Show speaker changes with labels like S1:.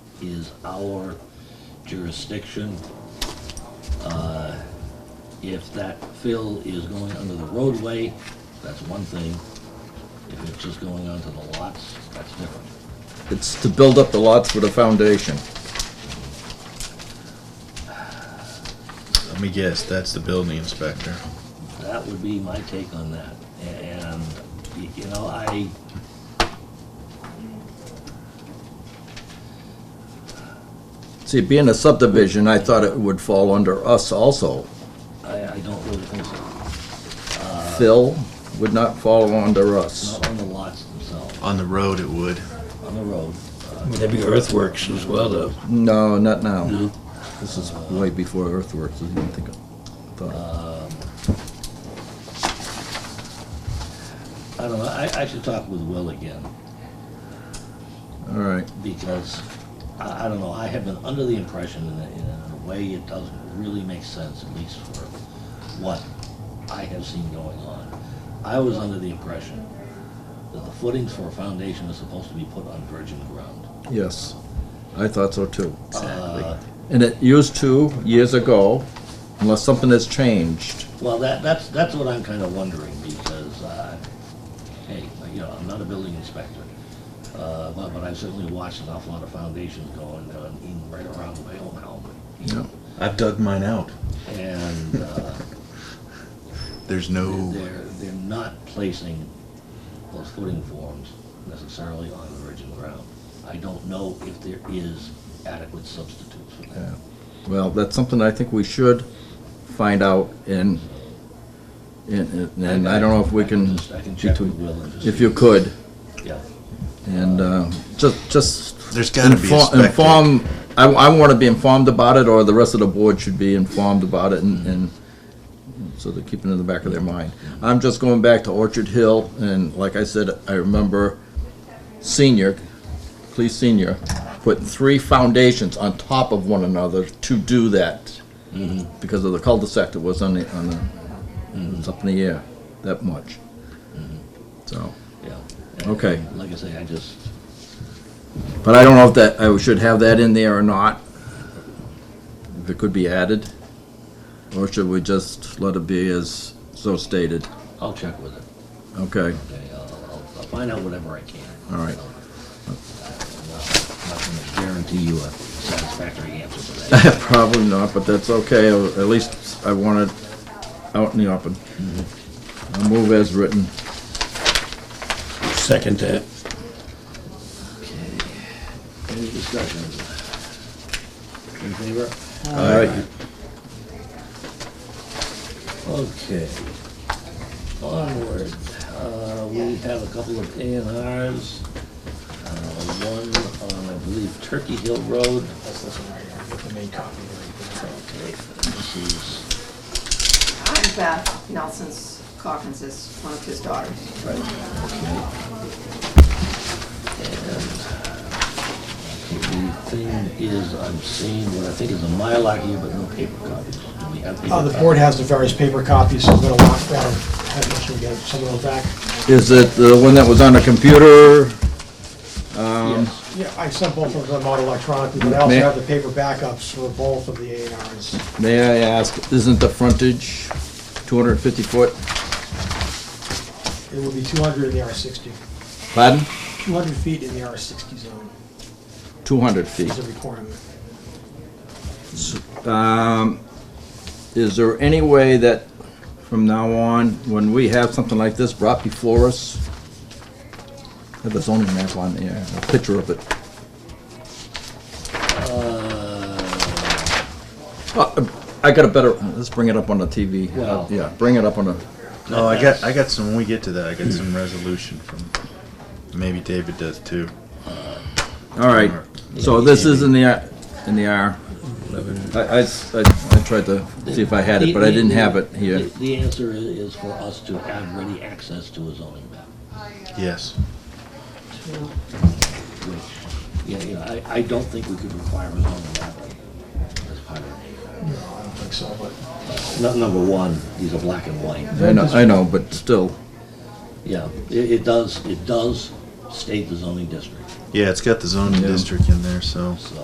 S1: is our jurisdiction. Uh, If that fill is going under the roadway, that's one thing. If it's just going onto the lots, that's different.
S2: It's to build up the lots with a foundation.
S3: Let me guess, that's the building inspector.
S1: That would be my take on that. And, y- you know, I...
S2: See, being a subdivision, I thought it would fall under us also.
S1: I, I don't really think so.
S2: Phil would not fall under us.
S1: Not on the lots themselves,
S3: On the road, it would.
S1: on the road. Uh,
S4: Maybe earthworks as well, though.
S2: No, not now.
S4: No.
S2: This is way before earthworks, I didn't think of- thought-
S1: Um, I don't know, I, I should talk with Will again,
S2: All right,
S1: because, I, I don't know, I have been under the impression in a, in a way it doesn't really make sense, at least for what I have seen going on. I was under the impression that the footings for a foundation is supposed to be put on virgin ground.
S2: yes. I thought so too.
S1: Uh,
S2: And it used to years ago, unless something has changed.
S1: Well, that, that's, that's what I'm kind of wondering, because, uh, hey, you know, I'm not a building inspector, uh, but, but I've certainly watched an awful lot of foundations going, on in right around my own home.
S2: Yeah.
S3: I've dug mine out.
S1: And, uh,
S3: There's no.
S1: they're, they're not placing those footing forms necessarily on virgin ground. I don't know if there is adequate substitutes for that.
S2: Yeah. Well, that's something I think we should find out and, and, and I don't know if we can,
S1: just- I can check with Will and just.
S2: if you could.
S1: Yeah,
S2: And uh, just, just.
S3: There's gotta be a
S2: inform-
S3: spec
S2: Inform, I, I want to be informed about it, or the rest of the board should be informed about it, and, and so they keep it in the back of their mind. I'm just going back to Orchard Hill, and like I said, I remember senior, police senior, putting three foundations on top of one another to do that. Because of the cul-de-sac that was on the, on the, it was up in the air that much. So,
S1: yeah.
S2: Okay.
S1: And Like I say, I just,
S2: But I don't know if that, I should have that in there or not. If it could be added. Or should we just let it be as so stated?
S1: I'll check with it.
S2: Okay,
S1: Okay, I'll, I'll- I'll find out whatever I can.
S2: all right.
S1: I'm not gonna guarantee you a satisfactory answer to that.
S2: Probably not, but that's okay. At least I want it out in the open. I'll move as written.
S4: Second that.
S1: Any discussion? In favor?
S2: All right.
S1: Okay. Onward, uh, we have a couple of A and Rs. Uh, one on, I believe, Turkey Hill Road.
S5: That's this one right here, the main copy. that I
S1: Okay, this is,
S6: I'm Beth Nelson's Coggins is one of his daughters.
S1: right, okay. And the thing is, I'm seeing what I think is a Mylar here, but no paper copies. Do we have paper
S5: Uh, The board has the various paper copies, so I'm gonna lock that, have Mitchell get some of those back.
S2: Is it the one that was on the computer?
S1: copies?
S2: Um,
S1: Yes.
S5: Yeah, I sent both of them out electronically, but I also
S2: May-
S5: have the paper backups for both of the A and Rs.
S2: May I ask, isn't the frontage 250 foot?
S5: It will be 200 in the R60,
S2: Pardon?
S5: 200 feet in the R60 zone
S2: 200 feet.
S5: is a requirement.
S2: Um, Is there any way that from now on, when we have something like this brought before us, have a zoning map on there, a picture of it?
S1: Uh,
S2: Uh, I got a better, let's bring it up on the TV.
S1: Well-
S2: Yeah, bring it up on the,
S3: Oh, I got, I got some. When we get to that, I got some resolution from. Maybe David does too.
S2: all right. So this is in the, R- in the R. I- I s- I- I tried to see if I had it, but I
S1: The-
S2: didn't
S1: the-
S2: have it here.
S1: the- The answer i- is for us to have ready access to a zoning map,
S3: Yes.
S1: which, yeah, you know, I, I don't think we could require a zoning map as part of it.
S5: No, I don't think so, but
S1: Nu- Number one, these are black and white.
S2: I know, I know, but still,
S1: Yeah, it, it does, it does state the zoning district,
S3: Yeah, it's got the zoning
S2: Yeah.
S3: district in there, so.
S1: so.